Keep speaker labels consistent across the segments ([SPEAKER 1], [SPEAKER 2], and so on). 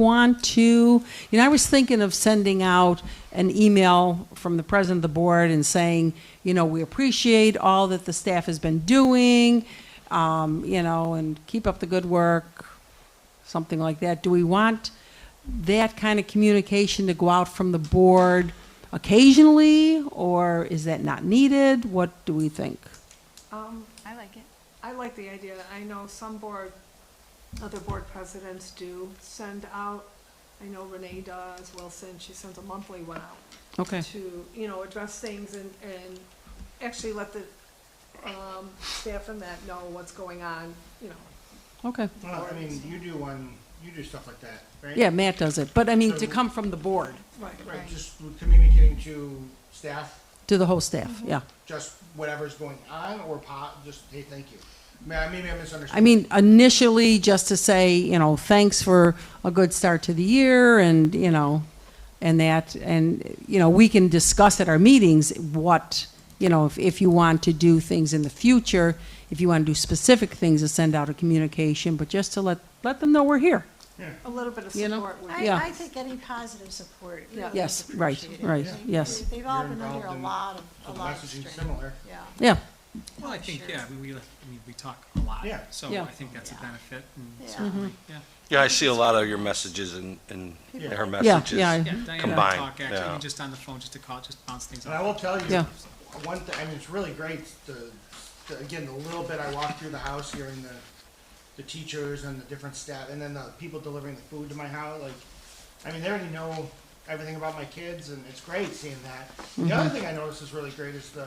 [SPEAKER 1] want to, you know, I was thinking of sending out an email from the president of the board and saying, you know, we appreciate all that the staff has been doing, um, you know, and keep up the good work, something like that. Do we want that kind of communication to go out from the board occasionally, or is that not needed? What do we think?
[SPEAKER 2] Um,
[SPEAKER 3] I like it.
[SPEAKER 2] I like the idea. I know some board, other board presidents do send out, I know Renee does, Wilson, she sends a monthly one out
[SPEAKER 1] Okay.
[SPEAKER 2] to, you know, address things and, and actually let the, um, staff in that know what's going on, you know.
[SPEAKER 1] Okay.
[SPEAKER 4] Well, I mean, you do one, you do stuff like that, right?
[SPEAKER 1] Yeah, Matt does it, but I mean, to come from the board,
[SPEAKER 2] Right.
[SPEAKER 4] Right, just communicating to staff,
[SPEAKER 1] to the whole staff, yeah.
[SPEAKER 4] just whatever's going on, or po, just, hey, thank you. Ma- Maybe I misunderstood.
[SPEAKER 1] I mean, initially, just to say, you know, thanks for a good start to the year and, you know, and that, and, you know, we can discuss at our meetings what, you know, if, if you want to do things in the future, if you want to do specific things to send out a communication, but just to let, let them know we're here.
[SPEAKER 2] A little bit of
[SPEAKER 1] You know?
[SPEAKER 2] support would be,
[SPEAKER 1] Yeah.
[SPEAKER 5] I, I think any positive support
[SPEAKER 2] Yeah.
[SPEAKER 5] really is
[SPEAKER 1] Yes, right,
[SPEAKER 5] appreciated.
[SPEAKER 1] right, yes,
[SPEAKER 5] They've all
[SPEAKER 4] You're
[SPEAKER 5] been under
[SPEAKER 4] involved
[SPEAKER 5] a
[SPEAKER 4] in
[SPEAKER 5] lot
[SPEAKER 4] the
[SPEAKER 5] of, a lot of
[SPEAKER 4] messaging
[SPEAKER 5] strain.
[SPEAKER 4] similar.
[SPEAKER 5] Yeah.
[SPEAKER 1] yeah,
[SPEAKER 6] Well, I think,
[SPEAKER 5] Sure.
[SPEAKER 6] yeah, I mean, we, we- we talk a lot.
[SPEAKER 4] Yeah.
[SPEAKER 6] So
[SPEAKER 1] Yeah.
[SPEAKER 6] I think that's a benefit
[SPEAKER 5] Yeah.
[SPEAKER 6] and certainly, yeah.
[SPEAKER 7] Yeah, I see a lot of your messages and, and her
[SPEAKER 1] yeah,
[SPEAKER 7] messages.
[SPEAKER 1] yeah.
[SPEAKER 6] Yeah, Diane and I
[SPEAKER 7] Combined,
[SPEAKER 6] talk actually, I
[SPEAKER 7] yeah.
[SPEAKER 6] mean, just on the phone, just to call, just bounce things
[SPEAKER 4] And I will
[SPEAKER 6] off.
[SPEAKER 4] tell you,
[SPEAKER 1] Yeah.
[SPEAKER 4] one thing, I mean, it's really great, the, the- again, the little bit I walked through the house hearing the, the teachers and the different staff, and then the people delivering the food to my house, like, I mean, they already know everything about my kids, and it's great seeing that. The other thing I noticed is really great is the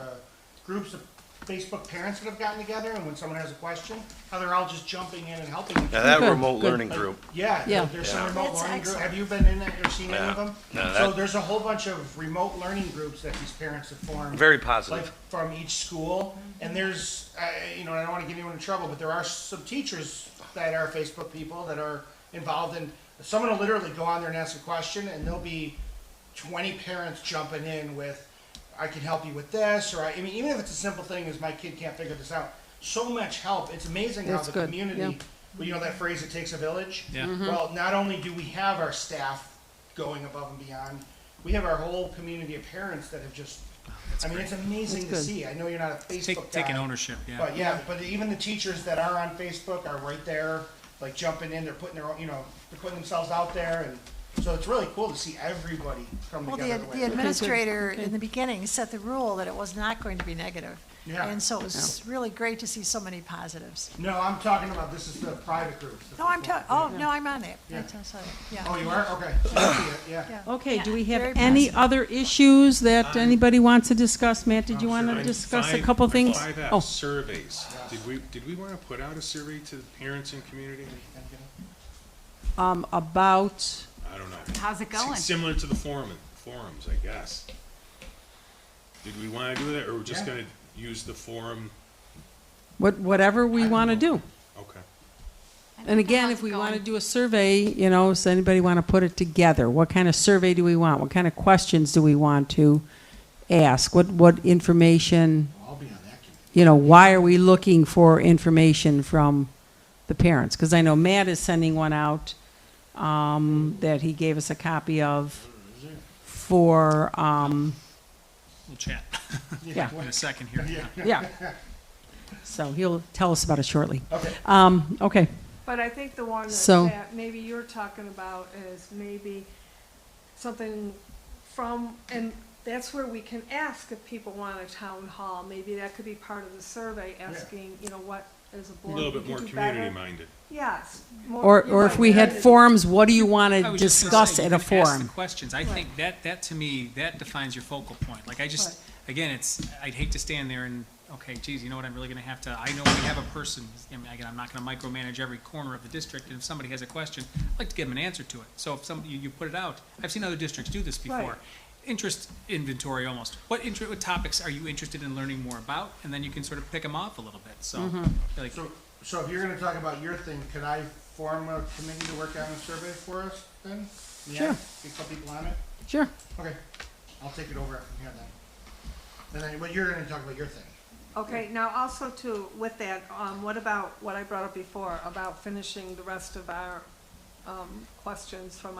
[SPEAKER 4] groups of Facebook parents that have gotten together, and when someone has a question, how they're all just jumping in and helping each
[SPEAKER 7] Now
[SPEAKER 4] other.
[SPEAKER 7] that
[SPEAKER 1] Good,
[SPEAKER 7] remote
[SPEAKER 1] good.
[SPEAKER 7] learning group,
[SPEAKER 4] Yeah,
[SPEAKER 1] Yeah.
[SPEAKER 4] there- there's some
[SPEAKER 7] Yeah.
[SPEAKER 4] remote
[SPEAKER 5] That's
[SPEAKER 4] learning group.
[SPEAKER 5] excellent.
[SPEAKER 4] Have you been in that or seen any
[SPEAKER 7] Yeah.
[SPEAKER 4] of them? So
[SPEAKER 7] No, that-
[SPEAKER 4] there's a whole bunch of remote learning groups that these parents have formed.
[SPEAKER 7] Very positive.
[SPEAKER 4] Like from each school, and there's, I, you know, I don't want to get anyone in trouble, but there are some teachers that are Facebook people that are involved in, someone will literally go on there and ask a question, and there'll be twenty parents jumping in with, I can help you with this, or I, I mean, even if it's a simple thing as my kid can't figure this out, so much help. It's amazing how
[SPEAKER 1] That's
[SPEAKER 4] the
[SPEAKER 1] good,
[SPEAKER 4] community,
[SPEAKER 1] yeah.
[SPEAKER 4] well, you know that phrase, it takes a village?
[SPEAKER 6] Yeah. Mhm.
[SPEAKER 4] Well, not only do we have our staff going above and beyond, we have our whole community of parents that have just, I mean, it's amazing to
[SPEAKER 1] That's good.
[SPEAKER 4] see. I know you're not a Facebook
[SPEAKER 6] Take,
[SPEAKER 4] guy.
[SPEAKER 6] taking ownership, yeah.
[SPEAKER 4] But yeah, but even the teachers that are on Facebook are right there, like jumping in, they're putting their own, you know, they're putting themselves out there and, so it's really cool to see everybody come
[SPEAKER 5] Well,
[SPEAKER 4] together.
[SPEAKER 5] the,
[SPEAKER 4] the way
[SPEAKER 5] the
[SPEAKER 4] it is.
[SPEAKER 5] administrator in the beginning set the rule that it was not going to be negative.
[SPEAKER 4] Yeah.
[SPEAKER 5] And so it was really great to see so many positives.
[SPEAKER 4] No, I'm talking about, this is the private groups.
[SPEAKER 5] No, I'm
[SPEAKER 4] talking.
[SPEAKER 5] talking, oh, no, I'm on it.
[SPEAKER 4] Yeah.
[SPEAKER 5] That's also-
[SPEAKER 4] Oh,
[SPEAKER 5] Yeah.
[SPEAKER 4] you are? Okay. I see it, Yeah.
[SPEAKER 5] Yeah.
[SPEAKER 1] Okay, do we have
[SPEAKER 5] Very
[SPEAKER 1] any
[SPEAKER 5] positive.
[SPEAKER 1] other issues that anybody wants to discuss? Matt, did you want to
[SPEAKER 8] Item
[SPEAKER 1] discuss a
[SPEAKER 8] five-
[SPEAKER 1] couple things?
[SPEAKER 8] Five
[SPEAKER 1] Oh.
[SPEAKER 8] F, surveys. Did we, did we want to put out a survey to the parents and community?
[SPEAKER 1] Um, about,
[SPEAKER 8] I don't know.
[SPEAKER 3] How's it going?
[SPEAKER 8] S- Similar to the forum, forums, I guess. Did we want to do that, or we're just
[SPEAKER 4] Yeah.
[SPEAKER 8] gonna use the forum?
[SPEAKER 1] what, whatever we want to do.
[SPEAKER 8] Okay.
[SPEAKER 1] And again, if we want to do a survey, you know, does anybody want to put it together? What kind of survey do we want? What kind of questions do we want to ask? What, what information,
[SPEAKER 4] I'll be on that committee.
[SPEAKER 1] you know, why are we looking for information from the parents? Because I know Matt is sending one out um, that he gave us a copy of for, um,
[SPEAKER 6] We'll chat
[SPEAKER 1] yeah,
[SPEAKER 6] in a second here.
[SPEAKER 1] yeah. So he'll tell us about it shortly.
[SPEAKER 4] Okay.
[SPEAKER 1] Um, okay,
[SPEAKER 2] But I think the one that-
[SPEAKER 1] So-
[SPEAKER 2] that maybe you're talking about is maybe something from, and that's where we can ask if people want a town hall. Maybe that could be part of the survey, asking, you know, what as a
[SPEAKER 8] A
[SPEAKER 2] board.
[SPEAKER 8] little
[SPEAKER 2] we
[SPEAKER 8] bit
[SPEAKER 2] could
[SPEAKER 8] more
[SPEAKER 2] do better.
[SPEAKER 8] community-minded.
[SPEAKER 2] Yes. more-
[SPEAKER 1] or,
[SPEAKER 2] you're
[SPEAKER 1] or if
[SPEAKER 2] right,
[SPEAKER 1] we had
[SPEAKER 2] community.
[SPEAKER 1] forums, what do you want
[SPEAKER 6] I
[SPEAKER 1] to
[SPEAKER 6] was just gonna
[SPEAKER 1] discuss
[SPEAKER 6] say,
[SPEAKER 1] at
[SPEAKER 6] you
[SPEAKER 1] a
[SPEAKER 6] can ask the
[SPEAKER 1] forum?
[SPEAKER 6] questions. I think that, that to me, that defines your focal point. Like, I just, again, it's, I'd hate to stand there and, okay, geez, you know what, I'm really gonna have to, I know we have a person, I mean, again, I'm not gonna micromanage every corner of the district, and if somebody has a question, I'd like to give them an answer to it. So if some, you, you put it out, I've seen other districts do this before.
[SPEAKER 2] Right.
[SPEAKER 6] Interest inventory almost. What inter, what topics are you interested in learning more about? And then you can sort of pick them off a little bit, so,
[SPEAKER 1] Mm-hmm.
[SPEAKER 6] like,
[SPEAKER 4] So, so if you're gonna talk about your thing, could I form a committee to work on a survey for us then?
[SPEAKER 1] Sure.
[SPEAKER 4] Yeah, Get some people on it?
[SPEAKER 1] Sure.
[SPEAKER 4] Okay, I'll take it over from here then. And then, well, you're gonna talk about your thing.
[SPEAKER 2] Okay, now also too, with that, um, what about what I brought up before, about finishing the rest of our, um, questions from